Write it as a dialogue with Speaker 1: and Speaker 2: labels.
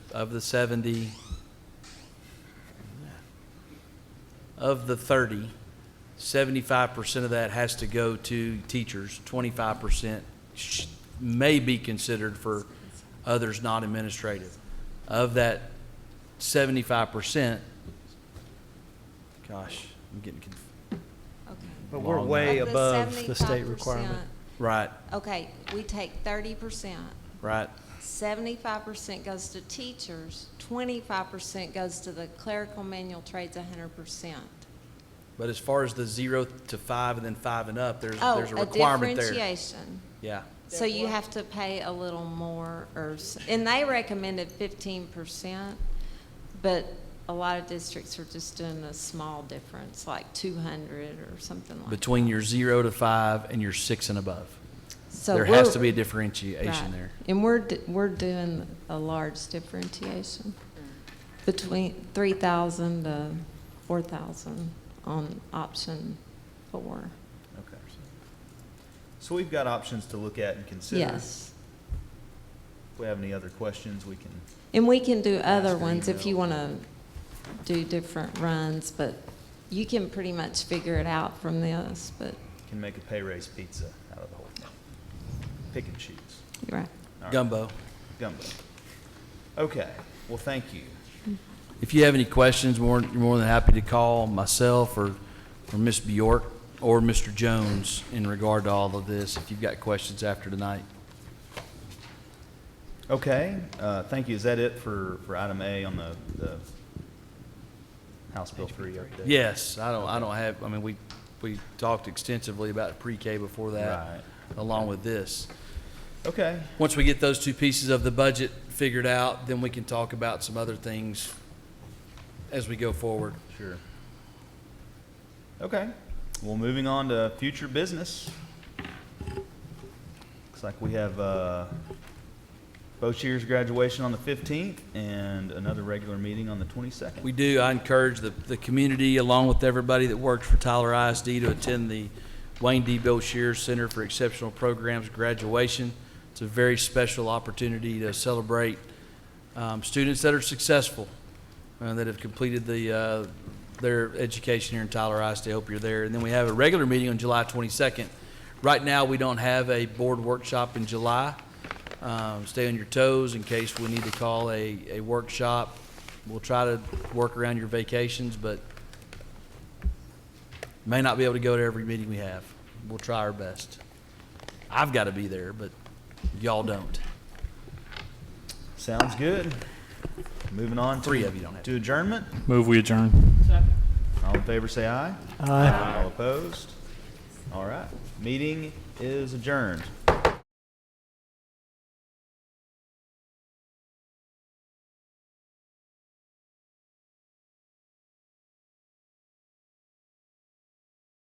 Speaker 1: of the 70, of the 30, 75% of that has to go to teachers, 25% sh- may be considered for others not administrative. Of that 75%, gosh, I'm getting, conf-
Speaker 2: Okay.
Speaker 3: But we're
Speaker 1: Long
Speaker 3: way
Speaker 2: Of the
Speaker 3: above the state
Speaker 2: 75%,
Speaker 3: requirement.
Speaker 1: right,
Speaker 2: Okay, we take thirty percent.
Speaker 1: right,
Speaker 2: Seventy-five percent goes to teachers, twenty-five percent goes to the clerical manual trades, hundred percent.
Speaker 1: but as far as the zero to five and then five and up, there's,
Speaker 2: Oh,
Speaker 1: there's a
Speaker 2: a
Speaker 1: requirement there.
Speaker 2: differentiation.
Speaker 1: Yeah,
Speaker 2: So you have to pay a little more, or, s- and they recommended fifteen percent, but a lot of districts are just doing a small difference, like two hundred or something like. that.
Speaker 1: between your zero to five and your six and above.
Speaker 2: So
Speaker 1: There has
Speaker 2: we're-
Speaker 1: to be a
Speaker 2: Right.
Speaker 1: differentiation there.
Speaker 2: And we're, d- we're doing a large differentiation between 3,000 to 4,000 on option four.
Speaker 4: Okay. So we've got options to look at and consider.
Speaker 2: Yes.
Speaker 4: If we have any other questions, we can,
Speaker 2: And we can do other
Speaker 4: Ask an
Speaker 2: ones if you
Speaker 4: email.
Speaker 2: want to do different runs, but you can pretty much figure it out from this, but
Speaker 4: can make a pay raise pizza out of the whole thing. Pick and choose.
Speaker 2: you're right.
Speaker 4: All right.
Speaker 1: Gumbo.
Speaker 4: Gumbo. Okay, well, thank you.
Speaker 1: If you have any questions, more, you're more than happy to call myself or, or Ms. Bjork or Mr. Jones in regard to all of this, if you've got questions after tonight.
Speaker 4: Okay, uh, thank you. Is that it for, for item A on the, the House Bill three update?
Speaker 1: Yes, I don't, I don't have, I mean, we, we talked extensively about pre-K before that,
Speaker 4: Right.
Speaker 1: along with this.
Speaker 4: Okay,
Speaker 1: Once we get those two pieces of the budget figured out, then we can talk about some other things as we go forward.
Speaker 4: sure. Okay, well, moving on to future business. Looks like we have, uh, Bochier's graduation on the fifteenth and another regular meeting on the twenty-second.
Speaker 1: We do. I encourage the, the community, along with everybody that works for Tyler ISD, to attend the Wayne D. Boshier Center for Exceptional Programs graduation. It's a very special opportunity to celebrate um, students that are successful, uh, that have completed the, uh, their education here in Tyler ISD. I hope you're there. And then we have a regular meeting on July 22nd. Right now, we don't have a board workshop in July. Um, Stay on your toes in case we need to call a, a workshop. We'll try to work around your vacations, but may not be able to go to every meeting we have. We'll try our best. I've got to be there, but y'all don't.
Speaker 4: Sounds good. Moving on. to-
Speaker 1: Three of you don't have to.
Speaker 4: To adjournment.
Speaker 5: Move we adjourn.
Speaker 4: All in favor, say aye.
Speaker 3: Aye.
Speaker 4: All opposed? All right. Meeting is adjourned.